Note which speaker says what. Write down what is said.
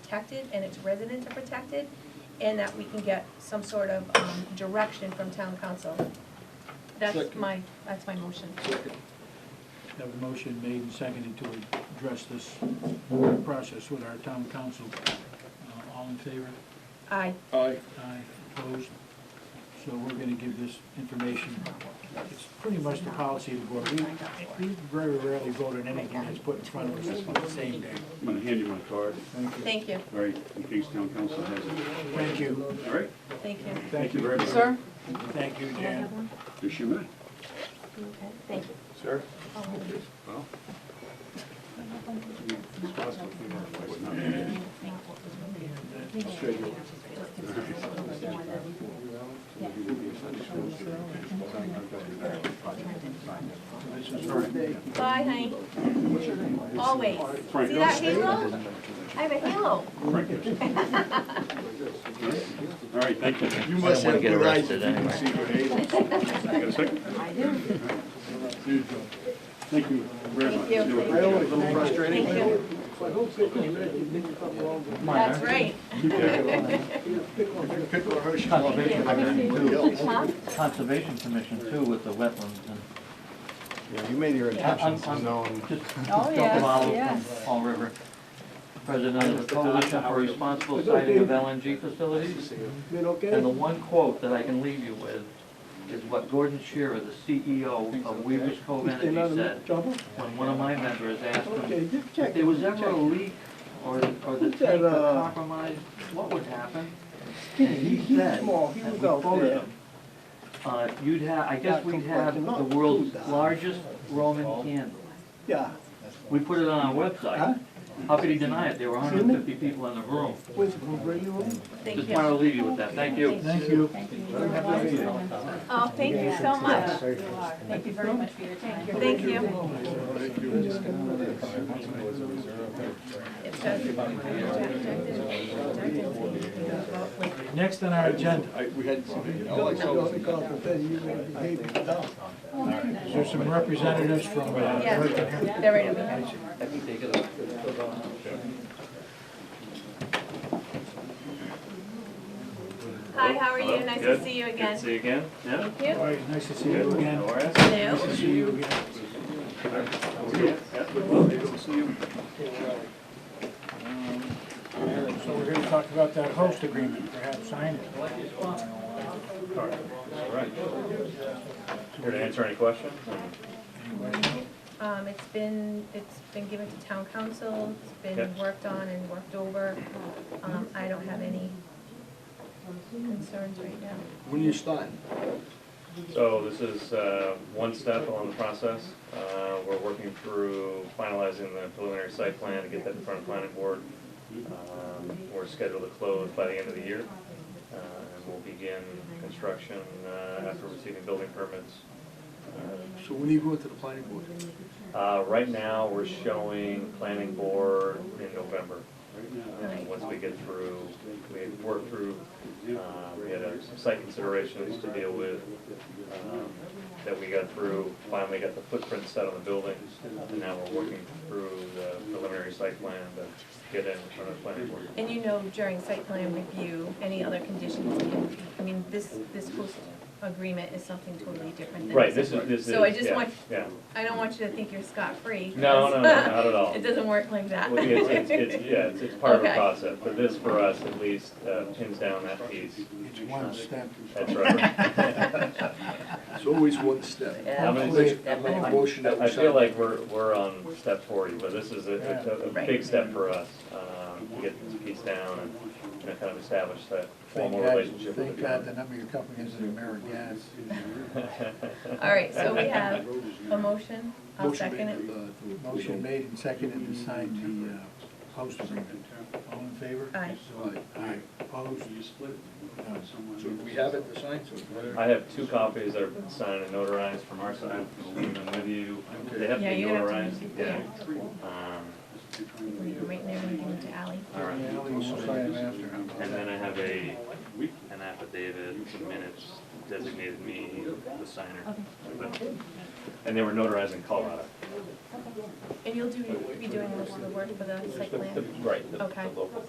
Speaker 1: protected and its residents are protected, and that we can get some sort of um, direction from town council. That's
Speaker 2: Second.
Speaker 1: my, that's my motion.
Speaker 3: Have a motion made and seconded to address this process with our town council. Uh, All in favor?
Speaker 1: Aye.
Speaker 2: Aye.
Speaker 3: Aye, opposed? So we're gonna give this information. It's pretty much the policy of the board. We, we very rarely vote on anything that's put in front of us on the same day.
Speaker 4: I'm gonna hand you my card,
Speaker 1: Thank you,
Speaker 4: all right, in case town council has it,
Speaker 3: Thank you,
Speaker 4: all right?
Speaker 1: thank you.
Speaker 3: thank you,
Speaker 4: very much.
Speaker 5: Sir?
Speaker 3: thank you, Jan.
Speaker 4: Yes, you may.
Speaker 1: Okay, thank you. Oh,
Speaker 2: Sir?
Speaker 4: Well. Would not be-
Speaker 1: Bye, honey. Always.
Speaker 4: Frank,
Speaker 1: See that
Speaker 4: don't stay.
Speaker 1: halo? I have a halo.
Speaker 4: Frank, yes. All right, thank you.
Speaker 2: You must
Speaker 6: wanna
Speaker 2: have
Speaker 6: get
Speaker 2: good eyes if
Speaker 6: arrested
Speaker 2: you can
Speaker 6: anyway.
Speaker 2: see your neighbors.
Speaker 4: You got a second?
Speaker 5: I do.
Speaker 4: Thank you very much.
Speaker 1: Thank you.
Speaker 4: Do it.
Speaker 2: I know, it's a little frustrating.
Speaker 1: Thank you. That's right.
Speaker 2: Pickle or Hershey.
Speaker 6: Conservation Commission too,
Speaker 1: Huh?
Speaker 6: Conservation Commission too with the wetlands and
Speaker 7: Yeah, you made your
Speaker 1: Yeah.
Speaker 7: intentions
Speaker 6: I'm- I'm-
Speaker 7: known.
Speaker 6: just
Speaker 5: Oh, yes,
Speaker 6: Dr. Marlowe
Speaker 5: yes.
Speaker 6: from Fall River, president of the Coalition for Responsible Siting of LNG Facilities. And the one quote that I can leave you with is what Gordon Shearer, the CEO of Weaver's Cove Energy said when one of my members asked him, if there was ever a leak or, or the tank
Speaker 8: that,
Speaker 6: got
Speaker 8: uh,
Speaker 6: compromised, what would happen? And he said,
Speaker 2: Oh,
Speaker 8: small, he
Speaker 6: and we
Speaker 8: was out
Speaker 6: quoted
Speaker 8: there.
Speaker 6: him, uh, you'd have, I guess
Speaker 8: Got
Speaker 6: we'd have
Speaker 8: complexion up
Speaker 6: the
Speaker 8: too,
Speaker 6: world's
Speaker 8: Doc.
Speaker 6: largest Roman candle.
Speaker 8: Yeah,
Speaker 6: We put it on our
Speaker 8: Huh?
Speaker 6: website. How could he deny it? There were hundred and fifty people in the room.
Speaker 8: was it from Radio?
Speaker 1: Thank
Speaker 6: Just
Speaker 1: you.
Speaker 6: wanted to leave you with that. Thank you.
Speaker 3: Thank you.
Speaker 1: Oh, thank you so much.
Speaker 5: Thank you very much for your time.
Speaker 1: Thank you. It says-
Speaker 3: Next on our agenda,
Speaker 2: I, we had somebody, you know,
Speaker 8: No,
Speaker 2: like, so-
Speaker 8: no, because I said you were behaving dumb.
Speaker 3: there's some representatives from, uh,
Speaker 1: Yeah, they're right over here. Hi, how are you? Nice to
Speaker 4: Good.
Speaker 1: see you
Speaker 4: Good to
Speaker 1: again.
Speaker 4: see you again, yeah?
Speaker 1: Thank you.
Speaker 3: all right, nice to see you again.
Speaker 4: How are you?
Speaker 1: Hello.
Speaker 3: Nice to see you again.
Speaker 4: Yeah, yeah, we'd love to see you.
Speaker 3: So we're here to talk about that host agreement, perhaps sign it.
Speaker 4: All right. Here to answer any questions?
Speaker 1: Um, it's been, it's been given to town council, it's been
Speaker 4: Yep.
Speaker 1: worked on and worked over. Um, I don't have any concerns right now.
Speaker 2: when you start,
Speaker 9: So this is uh, one step along the process. Uh, We're working through finalizing the preliminary site plan to get that in front of planning board. Um, We're scheduled to close by the end of the year. Uh, And we'll begin construction uh, after receiving building permits.
Speaker 2: so when you go into the planning board,
Speaker 9: Uh, Right now, we're showing planning board in November. Uh,
Speaker 1: Right.
Speaker 9: Once we get through, we had worked through, uh, we had uh, some site considerations to deal with um, that we got through, finally got the footprint set on the building, and now we're working through the preliminary site plan to get in front of the planning board.
Speaker 1: And you know during site plan review, any other conditions, you- I mean, this, this host agreement is something totally different than.
Speaker 9: Right, this is, this is,
Speaker 1: So I just
Speaker 9: yeah,
Speaker 1: want,
Speaker 9: yeah.
Speaker 1: I don't want you to think you're scot-free.
Speaker 9: No, no, no, not at all.
Speaker 1: It doesn't work like that.
Speaker 9: Well, It's, it's, it's, yeah, it's, it's part of the
Speaker 1: Okay.
Speaker 9: process, but this for us at least uh, pins down that piece.
Speaker 3: It's one step.
Speaker 9: That's right.
Speaker 2: it's always one step.
Speaker 9: I'm gonna-
Speaker 2: I make a motion that we
Speaker 9: I feel
Speaker 2: sign.
Speaker 9: like we're, we're on step forty, but this is a, a- a, a
Speaker 1: Right.
Speaker 9: big step for us, um, to get this piece down and, you know, kind of establish that
Speaker 3: Thank
Speaker 9: formal
Speaker 3: God,
Speaker 9: relationship with
Speaker 3: thank
Speaker 9: the
Speaker 3: God
Speaker 9: town.
Speaker 3: the number of your companies in America, yes.
Speaker 1: All right, so we have a motion, I'll
Speaker 2: Motion
Speaker 1: second it.
Speaker 2: made, uh, to-
Speaker 3: Motion made and seconded to sign the uh, host agreement. All in favor?
Speaker 1: Aye.
Speaker 2: Aye.
Speaker 3: Aye. Opposed?
Speaker 4: uh,
Speaker 3: None.
Speaker 2: So we have it to sign, so.
Speaker 9: I have two copies that are signed and notarized from our side, I'll leave them with you, they have to
Speaker 1: Yeah,
Speaker 9: be
Speaker 1: you have to
Speaker 9: notarized,
Speaker 1: make it
Speaker 9: yeah. Um,
Speaker 1: We can write there and give it to Ally.
Speaker 9: all right,
Speaker 3: Yeah, we will sign it after. How about
Speaker 9: and
Speaker 3: that?
Speaker 9: then I have a, an affidavit, some minutes designated me the signer. And they were notarized in Colorado.
Speaker 1: And you'll do, be doing most of the work for the site
Speaker 9: The- the-
Speaker 1: plan?
Speaker 9: Right, the the
Speaker 1: Okay.
Speaker 9: local